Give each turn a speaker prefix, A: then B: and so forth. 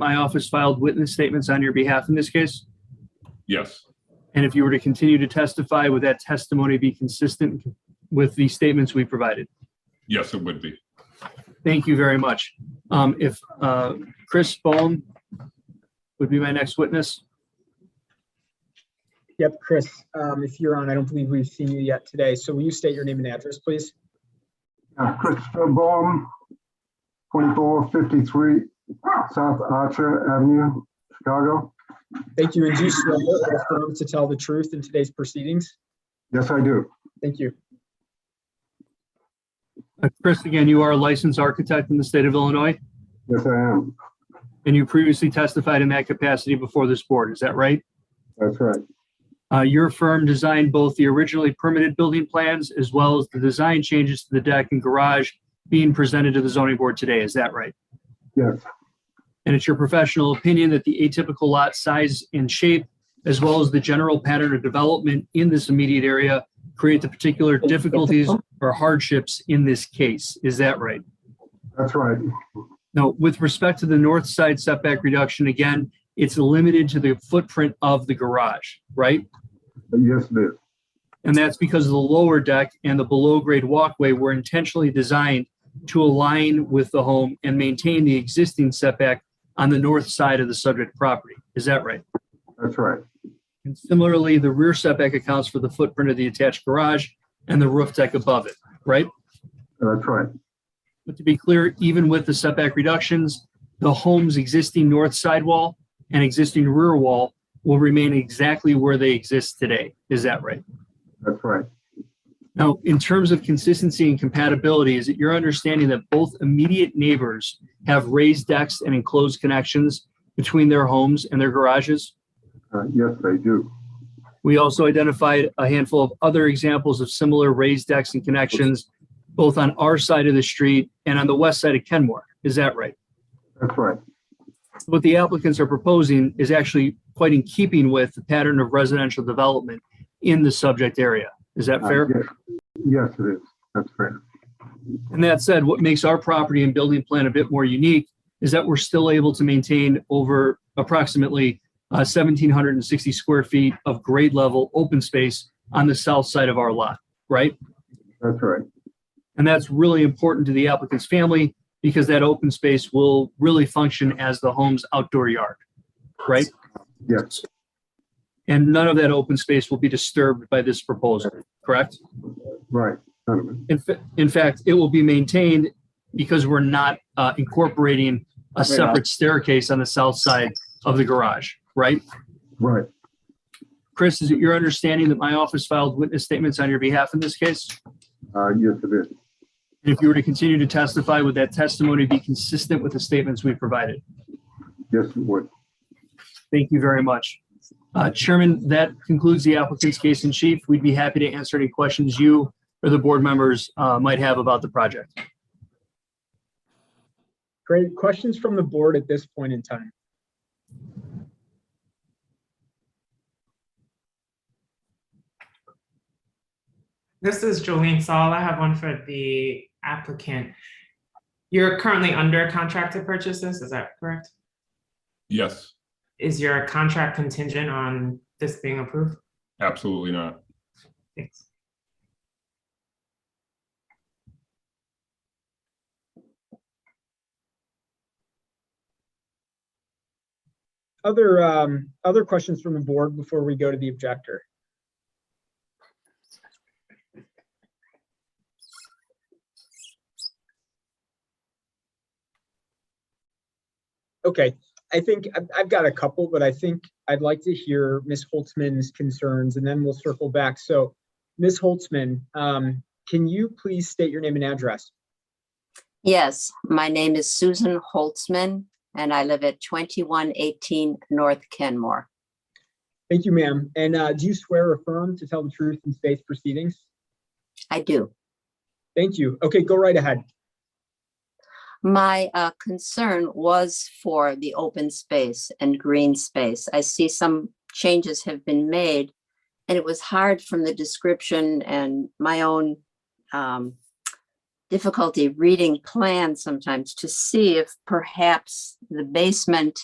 A: my office filed witness statements on your behalf in this case?
B: Yes,
A: And if you were to continue to testify, would that testimony be consistent with the statements we provided?
B: yes, it would be.
A: Thank you very much. Um, If uh, Chris Bohm would be my next witness.
C: Yep, Chris, um, if you're on, I don't believe we've seen you yet today. So will you state your name and address, please?
D: Uh, Christopher Baum, 2453 South Archer Avenue, Chicago.
C: Thank you, and do swear or affirm to tell the truth in today's proceedings?
D: Yes, I do.
C: Thank you.
A: Uh, Chris, again, you are a licensed architect in the state of Illinois,
D: Yes, I am.
A: and you previously testified in that capacity before this board. Is that right?
D: That's right.
A: Uh, Your firm designed both the originally permitted building plans as well as the design changes to the deck and garage being presented to the zoning board today. Is that right?
D: Yes,
A: And it's your professional opinion that the atypical lot size and shape, as well as the general pattern of development in this immediate area, create the particular difficulties or hardships in this case. Is that right?
D: that's right.
A: Now, with respect to the north side setback reduction, again, it's limited to the footprint of the garage, right?
D: Yes, it is.
A: And that's because the lower deck and the below grade walkway were intentionally designed to align with the home and maintain the existing setback on the north side of the subject property. Is that right?
D: That's right.
A: And similarly, the rear setback accounts for the footprint of the attached garage and the roof deck above it, right?
D: That's right.
A: But to be clear, even with the setback reductions, the home's existing north sidewall and existing rear wall will remain exactly where they exist today. Is that right?
D: That's right.
A: Now, in terms of consistency and compatibility, is it your understanding that both immediate neighbors have raised decks and enclosed connections between their homes and their garages?
D: Uh, Yes, they do.
A: We also identified a handful of other examples of similar raised decks and connections, both on our side of the street and on the west side of Kenmore. Is that right?
D: That's right.
A: What the applicants are proposing is actually quite in keeping with the pattern of residential development in the subject area. Is that
D: Uh,
A: fair?
D: yes. Yes, it is. That's fair.
A: And that said, what makes our property and building plan a bit more unique is that we're still able to maintain over approximately uh, 1,760 square feet of grade level open space on the south side of our lot, right?
D: That's right.
A: And that's really important to the applicant's family because that open space will really function as the home's outdoor yard, right?
D: Yes,
A: And none of that open space will be disturbed by this proposal, correct?
D: right. None of it.
A: In, fa- in fact, it will be maintained because we're not uh, incorporating a separate staircase on the south side of the garage, right?
D: Right.
A: Chris, is it your understanding that my office filed witness statements on your behalf in this case?
D: Uh, Yes, it is.
A: And if you were to continue to testify, would that testimony be consistent with the statements we provided?
D: Yes, it would.
A: Thank you very much. Uh, Chairman, that concludes the applicant's case in chief. We'd be happy to answer any questions you or the board members uh, might have about the project.
C: Great. Questions from the board at this point in time?
E: This is Jolene Saul. I have one for the applicant. You're currently under contract to purchase this, is that correct?
B: Yes,
E: Is your contract contingent on this being approved?
B: absolutely not.
E: Thanks.
C: Other, um, other questions from the board before we go to the objector? Okay, I think I've, I've got a couple, but I think I'd like to hear Ms. Holtzman's concerns and then we'll circle back. So Ms. Holtzman, um, can you please state your name and address?
F: Yes, my name is Susan Holtzman, and I live at 2118 North Kenmore.
C: Thank you, ma'am. And, uh, do you swear or affirm to tell the truth in today's proceedings?
F: I do.
C: Thank you. Okay, go right ahead.
F: My uh, concern was for the open space and green space. I see some changes have been made, and it was hard from the description and my own um, difficulty reading plans sometimes to see if perhaps the basement